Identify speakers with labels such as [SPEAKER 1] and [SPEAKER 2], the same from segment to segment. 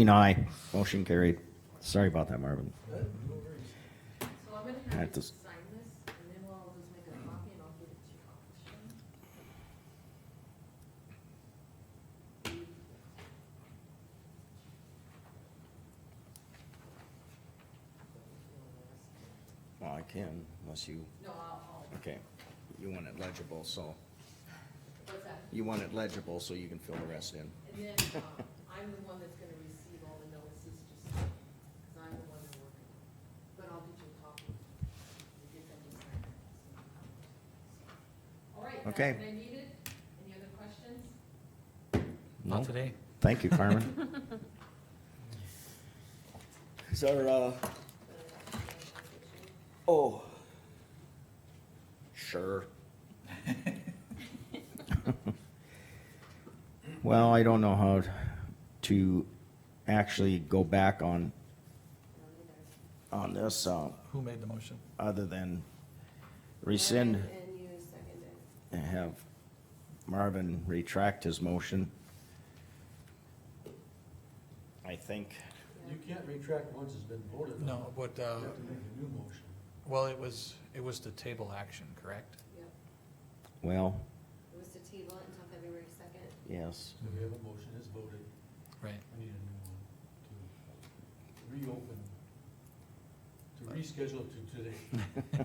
[SPEAKER 1] Green, aye. Motion carried. Sorry about that, Marvin.
[SPEAKER 2] So
[SPEAKER 1] I
[SPEAKER 2] I'm gonna have
[SPEAKER 1] have
[SPEAKER 2] you
[SPEAKER 1] to
[SPEAKER 2] just
[SPEAKER 1] s-
[SPEAKER 2] sign this, and then we'll all just make a copy and I'll give it to you.
[SPEAKER 1] Well, I can, unless you,
[SPEAKER 2] No, I'll, I'll,
[SPEAKER 1] okay, you want it legible, so,
[SPEAKER 2] what's that?
[SPEAKER 1] you want it legible so you can fill the rest in.
[SPEAKER 2] And then, um, I'm the one that's gonna receive all the notices, just, cause I'm the one they're working on. But I'll get you a copy. You get them to sign it. All right, that's
[SPEAKER 1] Okay.
[SPEAKER 2] what I needed. Any other questions?
[SPEAKER 1] No?
[SPEAKER 3] Not today.
[SPEAKER 1] Thank you,
[SPEAKER 2] uh,
[SPEAKER 1] Carmen. Is our, uh, oh. Sure. Well, I don't know how to actually go back on, on this, uh,
[SPEAKER 4] Who made the motion?
[SPEAKER 1] other than rescind
[SPEAKER 2] And you seconded.
[SPEAKER 1] and have Marvin retract his motion. I think,
[SPEAKER 5] You can't retract once it's been voted on.
[SPEAKER 4] No, but, uh,
[SPEAKER 5] You have to make a new motion.
[SPEAKER 4] well, it was, it was the table action, correct?
[SPEAKER 2] Yep,
[SPEAKER 1] well,
[SPEAKER 2] it was to table it until February second.
[SPEAKER 1] yes,
[SPEAKER 5] So we have a motion, it's voted,
[SPEAKER 4] Right.
[SPEAKER 5] we need a new one to reopen, to reschedule to today.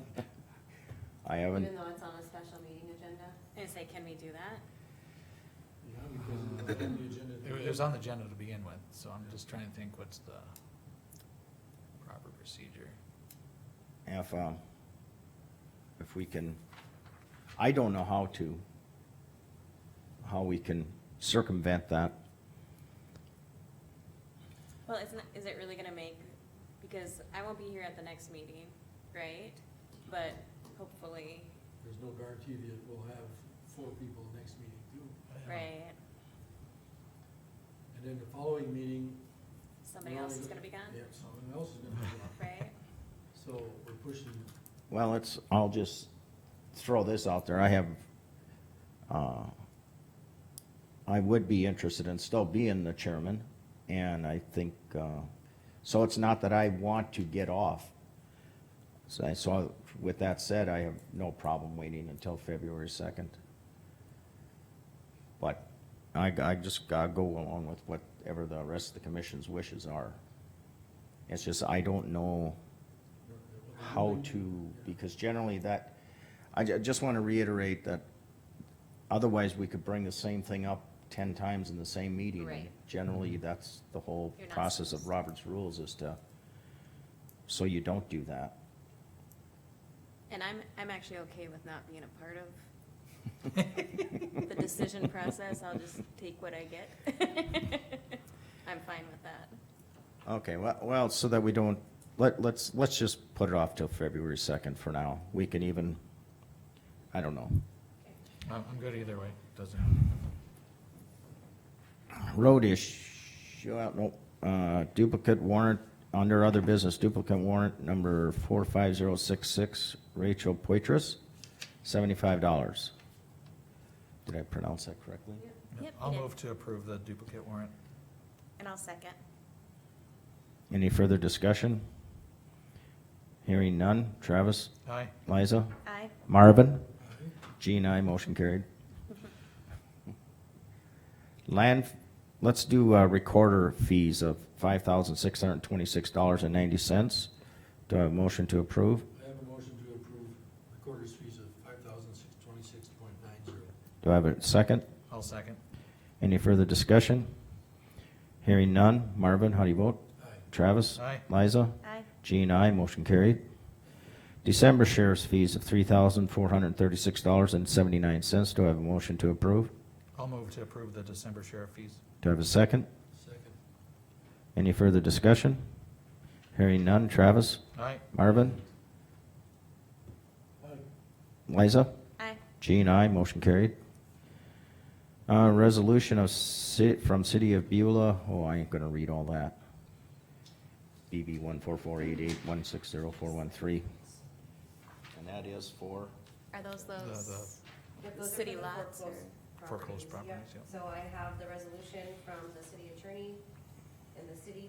[SPEAKER 1] I haven't,
[SPEAKER 2] Even though it's on a special meeting agenda?
[SPEAKER 6] And say, can we do that?
[SPEAKER 5] Yeah, because it's on the agenda.
[SPEAKER 4] It was, it was on the agenda to begin with, so I'm just trying to think what's the proper procedure.
[SPEAKER 1] if, um, if we can, I don't know how to, how we can circumvent that.
[SPEAKER 6] Well, it's not, is it really gonna make, because I won't be here at the next meeting, right? But hopefully,
[SPEAKER 5] There's no guarantee that we'll have four people next meeting too.
[SPEAKER 6] right,
[SPEAKER 5] And then the following meeting.
[SPEAKER 6] somebody
[SPEAKER 5] we're
[SPEAKER 6] else
[SPEAKER 5] only
[SPEAKER 6] is gonna be gone,
[SPEAKER 5] Yeah, someone else is gonna be gone,
[SPEAKER 6] right?
[SPEAKER 5] so we're pushing,
[SPEAKER 1] Well, it's, I'll just throw this out there. I have, uh, I would be interested in still being the chairman, and I think, uh, so it's not that I want to get off. So I saw, with that said, I have no problem waiting until February second. But I, I just gotta go along with whatever the rest of the commission's wishes are. It's just, I don't know
[SPEAKER 5] uh,
[SPEAKER 1] how to, because generally that, I ju- just want to reiterate that otherwise we could bring the same thing up ten times in the same meeting. and
[SPEAKER 6] Right.
[SPEAKER 1] Generally, that's the whole
[SPEAKER 6] You're not
[SPEAKER 1] process of
[SPEAKER 6] supposed to.
[SPEAKER 1] Robert's rules is to, so you don't do that.
[SPEAKER 6] And I'm, I'm actually okay with not being a part of the decision process, I'll just take what I get. I'm fine with that.
[SPEAKER 1] Okay, well, well, so that we don't, let, let's, let's just put it off till February second for now. We can even, I don't know.
[SPEAKER 4] I'm, I'm good either way, doesn't,
[SPEAKER 1] Road issue, uh, no, uh, duplicate warrant, under other business, duplicate warrant number 45066, Rachel Poitras, $75. Did I pronounce that correctly?
[SPEAKER 6] Yep,
[SPEAKER 4] I'll
[SPEAKER 6] you did.
[SPEAKER 4] move to approve the duplicate warrant.
[SPEAKER 6] And I'll second.
[SPEAKER 1] Any further discussion? Hearing none. Travis,
[SPEAKER 4] Aye.
[SPEAKER 1] Liza,
[SPEAKER 6] Aye.
[SPEAKER 1] Marvin, G and I, motion carried. Land, let's do uh, recorder fees of five thousand six hundred and twenty-six dollars and ninety cents. Do I have a motion to approve?
[SPEAKER 5] I have a motion to approve recorder's fees of five thousand six twenty-six point nine zero.
[SPEAKER 1] Do I have a second?
[SPEAKER 4] I'll second.
[SPEAKER 1] Any further discussion? Hearing none. Marvin, how do you vote?
[SPEAKER 5] Aye.
[SPEAKER 1] Travis?
[SPEAKER 4] Aye.
[SPEAKER 1] Liza?
[SPEAKER 6] Aye.
[SPEAKER 1] G and I, motion carried. December sheriff's fees of three thousand four hundred and thirty-six dollars and seventy-nine cents. Do I have a motion to approve?
[SPEAKER 4] I'll move to approve the December sheriff fees.
[SPEAKER 1] Do I have a second?
[SPEAKER 5] Second.
[SPEAKER 1] Any further discussion? Hearing none. Travis?
[SPEAKER 4] Aye.
[SPEAKER 1] Marvin?
[SPEAKER 5] Aye.
[SPEAKER 1] Liza?
[SPEAKER 6] Aye.
[SPEAKER 1] G and I, motion carried. Uh, resolution of ci- from City of Beulah, oh, I ain't gonna read all that. BB one four four eight eight one six zero four one three. And that is for?
[SPEAKER 6] Are those
[SPEAKER 4] The-
[SPEAKER 6] those?
[SPEAKER 7] Yep, those are
[SPEAKER 6] City
[SPEAKER 7] for the
[SPEAKER 6] lots or
[SPEAKER 7] foreclosed
[SPEAKER 4] Foreclosed
[SPEAKER 7] properties.
[SPEAKER 4] properties, yep.
[SPEAKER 7] So I have the resolution from the city attorney and the city